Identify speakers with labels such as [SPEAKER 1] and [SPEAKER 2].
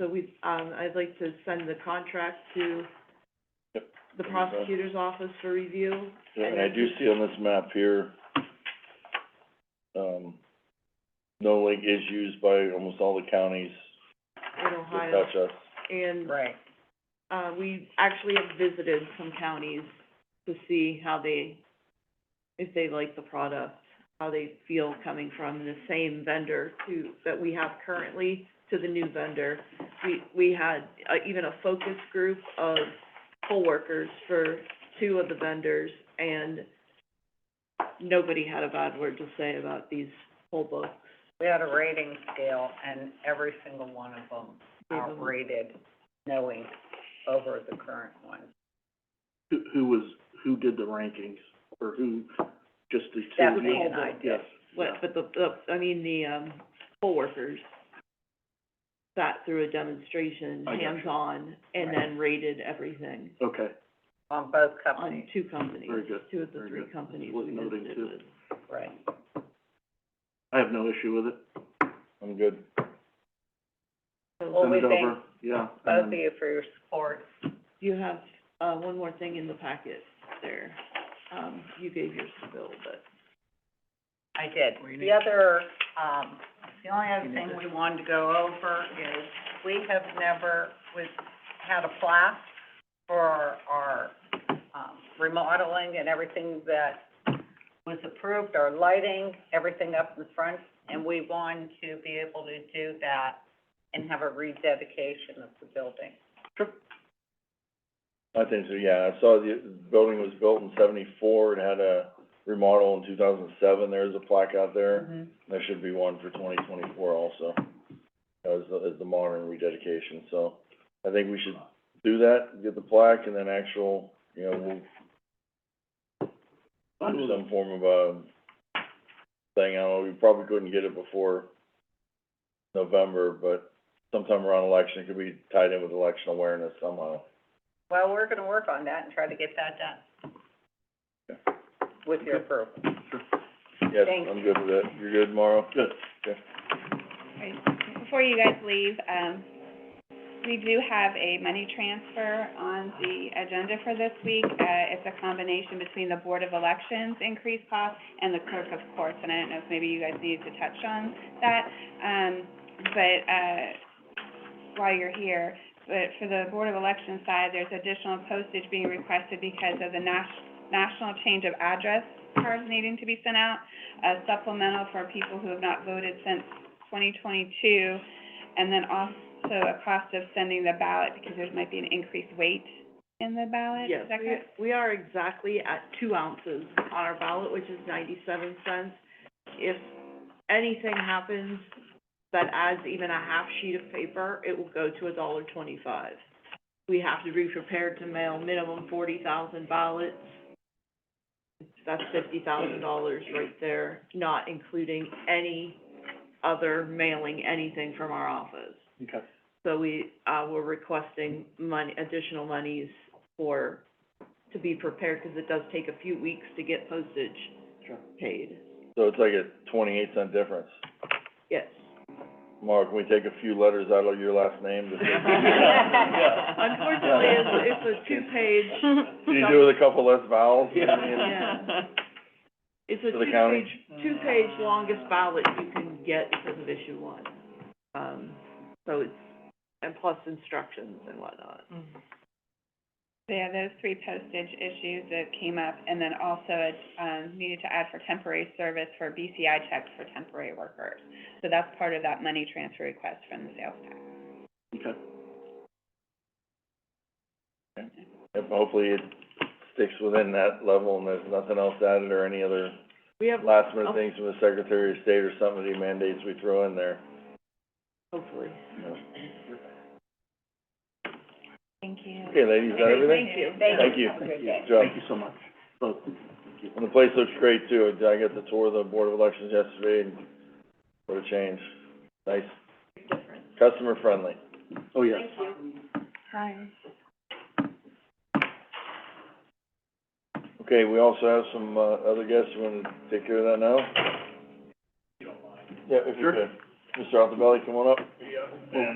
[SPEAKER 1] So we, um, I'd like to send the contract to
[SPEAKER 2] Yep.
[SPEAKER 1] the prosecutor's office for review.
[SPEAKER 2] Yeah, and I do see on this map here, um, no link is used by almost all the counties
[SPEAKER 1] In
[SPEAKER 2] that
[SPEAKER 1] Ohio,
[SPEAKER 2] touch us.
[SPEAKER 1] and,
[SPEAKER 3] Right.
[SPEAKER 1] uh, we actually have visited some counties to see how they, if they like the product, how they feel coming from the same vendor to, that we have currently to the new vendor. We, we had, uh, even a focus group of poll workers for two of the vendors, and nobody had a bad word to say about these poll books.
[SPEAKER 3] We had a rating scale and every single one of them
[SPEAKER 1] Gave
[SPEAKER 4] Mm-hmm.
[SPEAKER 1] 'em-
[SPEAKER 3] outrated knowing over the current one.
[SPEAKER 4] Who, who was, who did the rankings, or who, just the two?
[SPEAKER 3] Stephanie and I did.
[SPEAKER 4] Yes.
[SPEAKER 1] What, but the, the, I mean, the, um, poll workers sat through a demonstration,
[SPEAKER 4] I got you.
[SPEAKER 1] hands-on, and
[SPEAKER 3] Right.
[SPEAKER 1] then rated everything
[SPEAKER 4] Okay,
[SPEAKER 3] On both
[SPEAKER 1] on
[SPEAKER 3] companies,
[SPEAKER 1] two companies,
[SPEAKER 4] Very good,
[SPEAKER 1] two of the
[SPEAKER 4] very
[SPEAKER 1] three
[SPEAKER 4] good.
[SPEAKER 1] companies
[SPEAKER 4] Worth
[SPEAKER 1] we
[SPEAKER 4] noting,
[SPEAKER 1] visited
[SPEAKER 4] too.
[SPEAKER 1] with.
[SPEAKER 3] right.
[SPEAKER 4] I have no issue with it,
[SPEAKER 2] I'm good.
[SPEAKER 3] Well,
[SPEAKER 4] send
[SPEAKER 3] we
[SPEAKER 4] it
[SPEAKER 3] thank
[SPEAKER 4] over, yeah. and
[SPEAKER 3] Both of
[SPEAKER 4] then-
[SPEAKER 3] you for your support.
[SPEAKER 1] You have, uh, one more thing in the packet there. Um, you gave yours to Bill, but
[SPEAKER 3] I did. The other, um, the only other thing we wanted to go over is, we have never, we've had a plaque for our, um, remodeling and everything that was approved, our lighting, everything up in front, and we want to be able to do that and have a rededication of the building.
[SPEAKER 2] I think so, yeah, I saw the, the building was built in seventy-four, it had a remodel in two thousand and seven, there's a plaque out there. There should be one for twenty twenty-four also, as, the- as the modern rededication, so I think we should do that, get the plaque, and then actual, you know, we'll
[SPEAKER 4] Fine
[SPEAKER 2] do
[SPEAKER 4] with
[SPEAKER 2] some
[SPEAKER 4] it.
[SPEAKER 2] form of a thing, I don't know, we probably couldn't get it before November, but sometime around election, it could be tied in with election awareness somehow.
[SPEAKER 3] Well, we're gonna work on that and try to get that done. With your approval.
[SPEAKER 2] Yes,
[SPEAKER 3] Thanks.
[SPEAKER 2] I'm good with it, you're good, Mauro? Good.
[SPEAKER 5] Before you guys leave, um, we do have a money transfer on the agenda for this week. Uh, it's a combination between the Board of Elections increased cost and the clerk of courts, and I don't know if maybe you guys need to touch on that. Um, but, uh, while you're here, but for the Board of Elections side, there's additional postage being requested because of the nas- national change of address cards needing to be sent out, a supplemental for people who have not voted since twenty twenty-two, and then also a cost of sending the ballot, because there might be an increased weight in the ballot,
[SPEAKER 1] yes,
[SPEAKER 5] is that
[SPEAKER 1] we,
[SPEAKER 5] correct?
[SPEAKER 1] we are exactly at two ounces on our ballot, which is ninety-seven cents. If anything happens that adds even a half sheet of paper, it will go to a dollar twenty-five. We have to be prepared to mail minimum forty thousand ballots. That's fifty thousand dollars right there, not including any other mailing, anything from our office.
[SPEAKER 4] Okay,
[SPEAKER 1] So we, uh, we're requesting money, additional monies for, to be prepared, 'cause it does take a few weeks to get postage
[SPEAKER 4] sure.
[SPEAKER 1] paid.
[SPEAKER 2] So it's like a twenty-eight cent difference.
[SPEAKER 1] Yes.
[SPEAKER 2] Mark, can we take a few letters out of your last name to
[SPEAKER 1] Unfortunately, it's, it's a two-page,
[SPEAKER 2] Can you do with a couple less vowels?
[SPEAKER 1] yeah. It's a
[SPEAKER 2] For the county?
[SPEAKER 1] two-page, two-page longest ballot you can get because of issue one. Um, so it's, and plus instructions and whatnot.
[SPEAKER 5] Yeah, those three postage issues that came up, and then also, it, um, needed to add for temporary service for BCI checks for temporary workers. So that's part of that money transfer request from the sales tax.
[SPEAKER 4] Okay,
[SPEAKER 2] Yep, hopefully it sticks within that level and there's nothing else added or any other
[SPEAKER 1] We have,
[SPEAKER 2] last minute things from the Secretary of State or some of the mandates we throw in there.
[SPEAKER 1] hopefully.
[SPEAKER 2] you know.
[SPEAKER 5] Thank you.
[SPEAKER 2] Okay, ladies, is that everything?
[SPEAKER 1] Thank you.
[SPEAKER 2] Thank you.
[SPEAKER 3] Have a good day.
[SPEAKER 2] Joe.
[SPEAKER 4] thank you so much, both, thank you.
[SPEAKER 2] And the place looks great too. I got the tour of the Board of Elections yesterday and what a change. Nice. Customer friendly.
[SPEAKER 4] Oh, yes.
[SPEAKER 5] Hi.
[SPEAKER 2] Okay, we also have some, uh, other guests. You wanna take care of that now? Yeah, if you
[SPEAKER 4] Sure.
[SPEAKER 2] could. Mr. Altobelli, come on up.